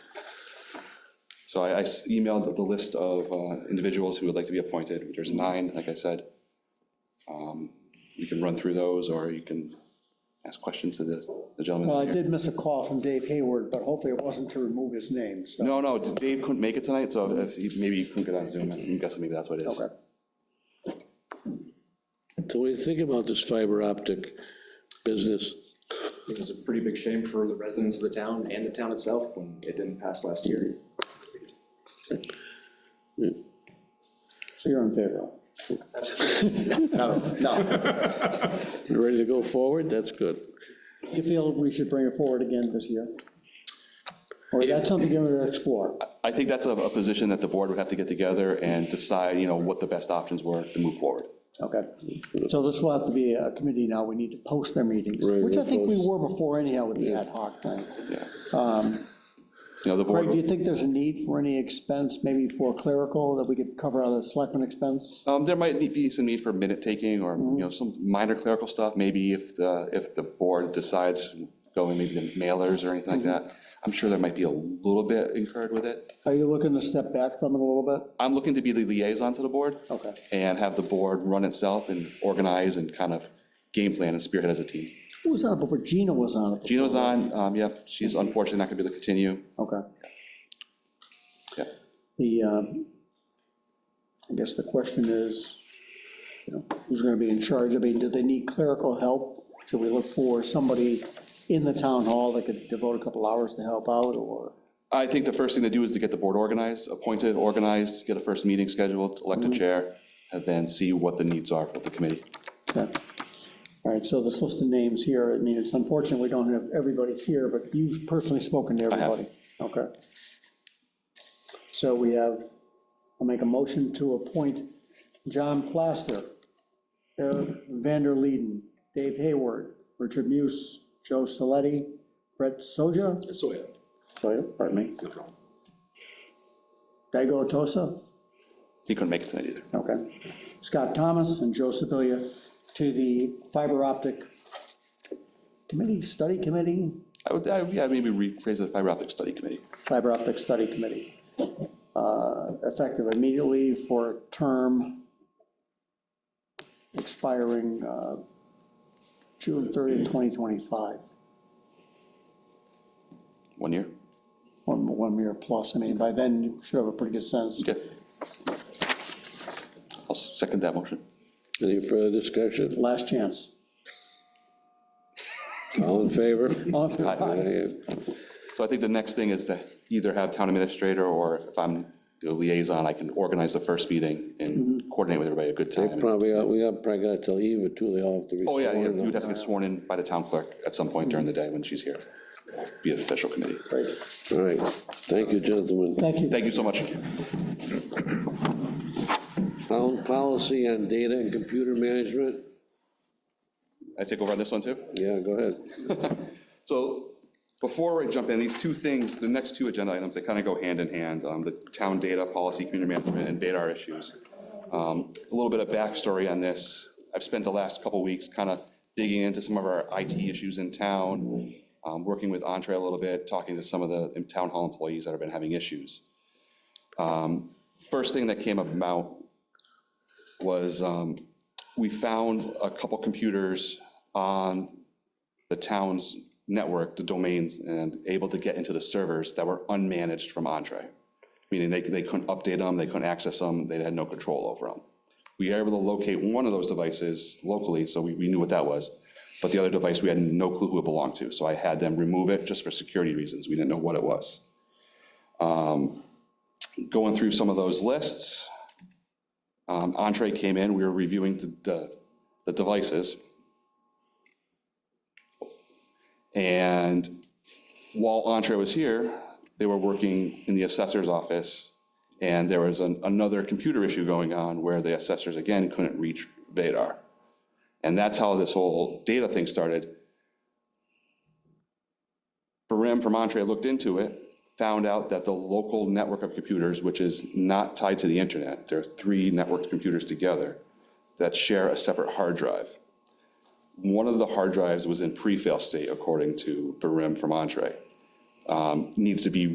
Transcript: So I I s- emailed the- the list of uh, individuals who would like to be appointed. There's nine, like I said. Um, You can run through those, or you can ask questions to the the gentleman. Well, I here. did miss a call from Dave Hayward, but hopefully it wasn't to remove his name, so. No, no, Dave couldn't make it tonight, so if he- maybe he couldn't get on Zoom. I'm guessing maybe that's what it is. Okay. So what do you think about this fiber optic business? It was a pretty big shame for the residents of the town and the town itself when it didn't pass last year. So you're in favor. You Ready to go forward? That's good. You feel we should bring it forward again this year? Or is that something you're going to explore? I think that's a a position that the board would have to get together and decide, you know, what the best options were to move forward. Okay, so this will have to be a committee now, we need to post their meetings, Right, which I we'll think we post. were before anyhow with the ad hoc thing. Yeah. You know, the board. Greg, do Um, you think there's a need for any expense, maybe for clerical, that we could cover out of selectmen expense? Um, There might need- be some need for minute taking or, you know, some minor clerical stuff, maybe if the, if the board decides going maybe to mailers or anything like that. I'm sure there might be a little bit incurred with it. Are you looking to step back from it a little bit? I'm looking to be the liaison to the board. Okay. And have the board run itself and organize and kind of game plan and spearhead as a team. Who was on it before, Gina was on it? Gino's on, um, yep, she's unfortunately not going to be able to continue. Okay. Yeah. The, um, I guess the question is, you know, who's going to be in charge? I mean, do they need clerical help? Should we look for somebody in the town hall that could devote a couple hours to help out, or? I think the first thing to do is to get the board organized, appointed, organized, get a first meeting scheduled, elect a chair, and then see what the needs are for the committee. Okay. All right, so this list of names here, I mean, it's unfortunate we don't have everybody here, but you've personally spoken to I have. everybody. Okay. So we have, I'll make a motion to appoint John Plaster, Eric Vander Leeden, Dave Hayward, Richard Muse, Joe Saletti, Brett Soja, So, yeah, Soja, pardon me, no problem. Dago Tosa, He couldn't make it tonight either. Okay. Scott Thomas and Joe Sibilia to the fiber optic committee, study committee, I would, I- yeah, maybe rephrase the fiber optic study committee. fiber optic study committee, uh, effective immediately for a term expiring uh, June 30, 2025, One year? one, one year plus. I mean, by then, you should have a pretty good sense. Okay. I'll second that motion. Any further discussion? Last chance. All in favor? All in favor? Aye. So I think the next thing is to either have town administrator, or if I'm the liaison, I can organize the first meeting and coordinate with everybody a good time. Probably, uh, we are probably got till eve or two, they all have to be. Oh, yeah, yeah, sworn you in. would have to get sworn in by the town clerk at some point during the day when she's here, be an official committee. All right, thank you, gentlemen. Thank you. Thank you so much. Town policy on data and computer management, I take over on this one, too? yeah, go ahead. So before I jump in, these two things, the next two agenda items, they kind of go hand in hand, um, the town data policy, community management, and data issues. Um, A little bit of backstory on this. I've spent the last couple weeks kind of digging into some of our IT issues in town, um, working with Entree a little bit, talking to some of the town hall employees that have been having issues. Um, First thing that came about was um, we found a couple computers on the town's network, the domains, and able to get into the servers that were unmanaged from Entree. Meaning they, they couldn't update them, they couldn't access them, they had no control over them. We were able to locate one of those devices locally, so we, we knew what that was. But the other device, we had no clue who it belonged to, so I had them remove it just for security reasons, we didn't know what it was. Um, Going through some of those lists, um, Entree came in, we were reviewing the- the, the devices. And while Entree was here, they were working in the assessor's office, and there was an- another computer issue going on where the assessors, again, couldn't reach Vadar. And that's how this whole data thing started. Barim from Entree looked into it, found out that the local network of computers, which is not tied to the internet, there are three networked computers together that share a separate hard drive one of the E hard drives was in pre-fail state, according to Barim from Entree. Um, Needs to be